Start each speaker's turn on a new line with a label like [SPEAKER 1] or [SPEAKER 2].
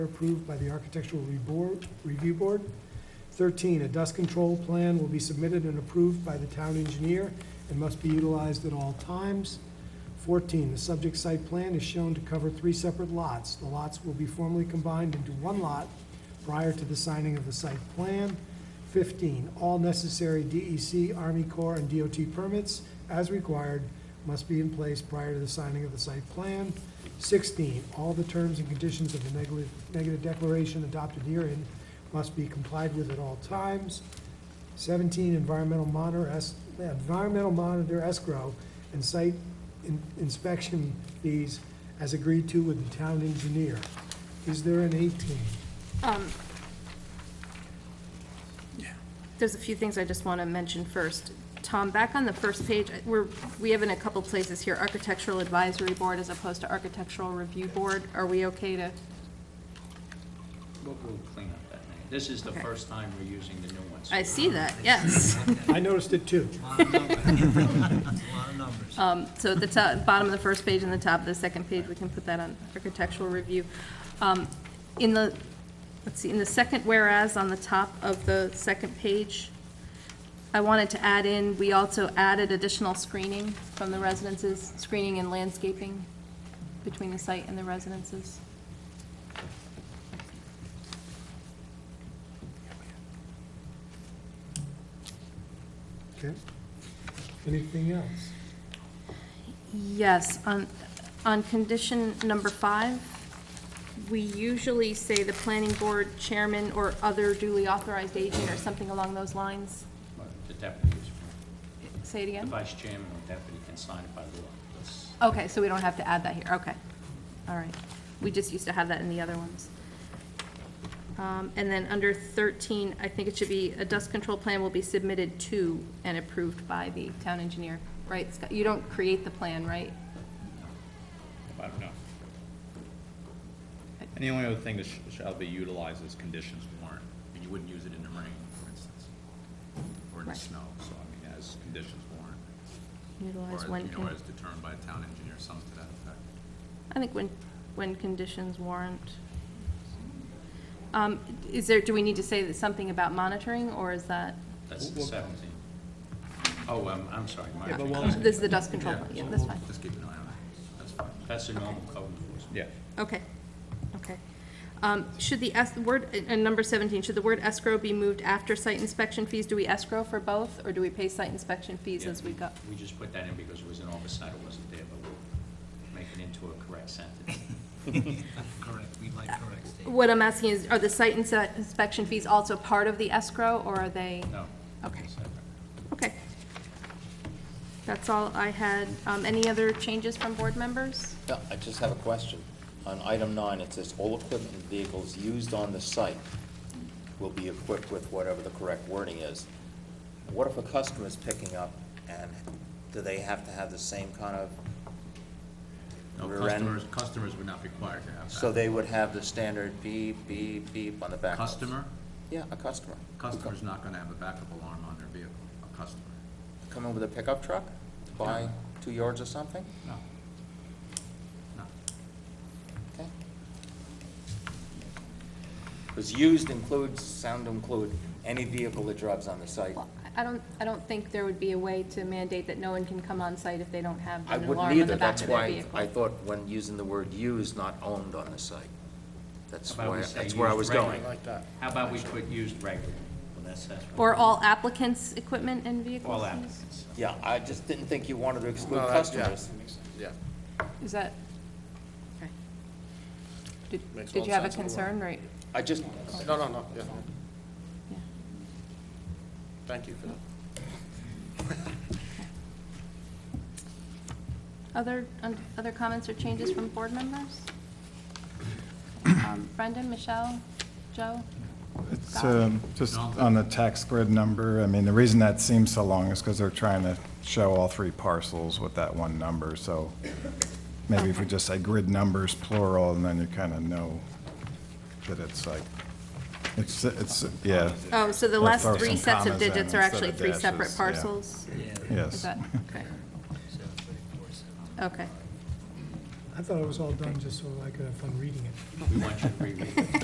[SPEAKER 1] approved by the Architectural Reboor- Review Board. 13, a dust control plan will be submitted and approved by the town engineer and must be utilized at all times. 14, the subject site plan is shown to cover three separate lots. The lots will be formally combined into one lot prior to the signing of the site plan. 15, all necessary DEC, Army Corps, and DOT permits, as required, must be in place prior to the signing of the site plan. 16, all the terms and conditions of the negative- negative declaration adopted herein must be complied with at all times. 17, environmental monitor, es- environmental monitor escrow and site in- inspection fees as agreed to with the town engineer. Is there an 18?
[SPEAKER 2] Um, There's a few things I just want to mention first. Tom, back on the first page, I- we're, we have in a couple places here Architectural Advisory Board as opposed to Architectural Review Board. Are we okay to,
[SPEAKER 3] We'll, we'll clean up that name. This is the
[SPEAKER 2] Okay.
[SPEAKER 3] first time we're using the new ones.
[SPEAKER 2] I see that, yes.
[SPEAKER 1] I noticed it too.
[SPEAKER 4] Lot of numbers. Lot of numbers.
[SPEAKER 2] Um, So at the top, bottom of the first page and the top of the second page, we can put that on architectural review. Um, In the, let's see, in the second whereas on the top of the second page, I wanted to add in, we also added additional screening from the residences, screening and landscaping between the site and the residences.
[SPEAKER 1] Okay. Anything else?
[SPEAKER 2] Yes, on, on condition number five, we usually say the planning board chairman or other duly authorized agent or something along those lines.
[SPEAKER 3] But The deputy is,
[SPEAKER 2] Say it
[SPEAKER 3] the
[SPEAKER 2] again?
[SPEAKER 3] vice chairman or deputy can sign it by law. That's,
[SPEAKER 2] Okay, so we don't have to add that here, okay. All right. We just used to have that in the other ones. Um, And then under 13, I think it should be, a dust control plan will be submitted to and approved by the town engineer, right? Scott? You don't create the plan, right?
[SPEAKER 5] I don't know. And the only other thing that sh- shall be utilized is conditions warrant, and you wouldn't use it in the rain, for instance, or in the
[SPEAKER 2] Right.
[SPEAKER 5] snow, so I mean, as conditions warrant. Or,
[SPEAKER 2] Utilize
[SPEAKER 5] as,
[SPEAKER 2] when.
[SPEAKER 5] you know,
[SPEAKER 2] con-
[SPEAKER 5] as determined by a town engineer, something to that effect.
[SPEAKER 2] I think when, when conditions warrant. Um, Is there, do we need to say that something about monitoring, or is that?
[SPEAKER 3] that's the
[SPEAKER 5] Well-
[SPEAKER 3] seventeen. Oh, um, I'm sorry,
[SPEAKER 5] Yeah, but
[SPEAKER 3] my,
[SPEAKER 5] we'll-
[SPEAKER 2] This is the dust control, plan. yeah,
[SPEAKER 5] so
[SPEAKER 2] that's
[SPEAKER 5] we'll
[SPEAKER 2] fine.
[SPEAKER 5] Just keep an eye on it, that's fine.
[SPEAKER 3] that's the normal code enforcement.
[SPEAKER 5] Yeah,
[SPEAKER 2] Okay, okay. Um, Should the es, word, and number 17, should the word escrow be moved after site inspection fees? Do we escrow for both, or do we pay site inspection fees
[SPEAKER 3] Yeah,
[SPEAKER 2] as we go?
[SPEAKER 3] We just put that in because it was an oversight, it wasn't there, but we'll make it into a correct sentence.
[SPEAKER 4] Correct, we like correct statements.
[SPEAKER 2] What I'm asking is, are the site inse- inspection fees also part of the escrow, or are they?
[SPEAKER 3] No.
[SPEAKER 2] Okay.
[SPEAKER 3] Separate.
[SPEAKER 2] Okay. That's all I had. Um, Any other changes from board members?
[SPEAKER 6] Yeah, I just have a question. On item nine, it says all equipment and vehicles used on the site will be equipped with whatever the correct wording is. What if a customer is picking up and do they have to have the same kind of,
[SPEAKER 5] no,
[SPEAKER 6] Rear end.
[SPEAKER 5] customers, customers would not be required to have that.
[SPEAKER 6] so they would have the standard beep, beep, beep on the back? of it?
[SPEAKER 5] Customer,
[SPEAKER 6] Yeah, a customer.
[SPEAKER 5] customer's not gonna have a backup alarm on their vehicle, a customer,
[SPEAKER 6] Come in with a pickup truck, to buy two yards or something?
[SPEAKER 5] no. No,
[SPEAKER 6] Okay. Because used includes, sound include, any vehicle that drives on the site.
[SPEAKER 2] Well, I I don't, I don't think there would be a way to mandate that no one can come on site if they don't have
[SPEAKER 6] I
[SPEAKER 2] an
[SPEAKER 6] wouldn't
[SPEAKER 2] alarm on
[SPEAKER 6] either,
[SPEAKER 2] the back
[SPEAKER 6] that's
[SPEAKER 2] of their
[SPEAKER 6] why
[SPEAKER 2] vehicle.
[SPEAKER 6] I thought when using the word used, not owned on the site. That's
[SPEAKER 3] How about
[SPEAKER 6] why,
[SPEAKER 3] we say
[SPEAKER 6] that's where I
[SPEAKER 3] used
[SPEAKER 6] was going.
[SPEAKER 3] regularly? How about we put used regularly? Well, that's, that's. what-
[SPEAKER 2] Or all applicants' equipment and vehicles?
[SPEAKER 3] All
[SPEAKER 2] used?
[SPEAKER 3] applicants.
[SPEAKER 6] Yeah, I just didn't think you wanted to exclude customers.
[SPEAKER 2] Is that, okay. Did
[SPEAKER 7] Makes
[SPEAKER 2] did
[SPEAKER 7] all
[SPEAKER 2] you have a
[SPEAKER 7] sense in the world.
[SPEAKER 2] concern, right?
[SPEAKER 6] I just,
[SPEAKER 7] No, no, no, yeah,
[SPEAKER 2] Yeah.
[SPEAKER 7] thank you for that.
[SPEAKER 2] Other, un- other comments or changes from board members? Um, Brendan, Michelle, Joe?
[SPEAKER 8] It's
[SPEAKER 2] Got
[SPEAKER 8] um, just on the tax grid number, I mean, the reason that seems so long is because they're trying to show all three parcels with that one number, so maybe if we just say grid numbers plural, and then you kind of know that it's like, it's, it's, yeah,
[SPEAKER 2] Oh, so the
[SPEAKER 8] Or
[SPEAKER 2] last
[SPEAKER 8] throw
[SPEAKER 2] three
[SPEAKER 8] some
[SPEAKER 2] sets of
[SPEAKER 8] commas in
[SPEAKER 2] digits are
[SPEAKER 8] instead
[SPEAKER 2] actually
[SPEAKER 8] of
[SPEAKER 2] three
[SPEAKER 8] dashes,
[SPEAKER 2] separate
[SPEAKER 8] yeah.
[SPEAKER 2] parcels?
[SPEAKER 4] Yeah.
[SPEAKER 2] Is
[SPEAKER 8] yes.
[SPEAKER 2] that, okay,
[SPEAKER 4] So, 34, so.
[SPEAKER 2] okay.
[SPEAKER 1] I I thought it was all done just so I could have fun reading it.
[SPEAKER 3] We want you to reread it.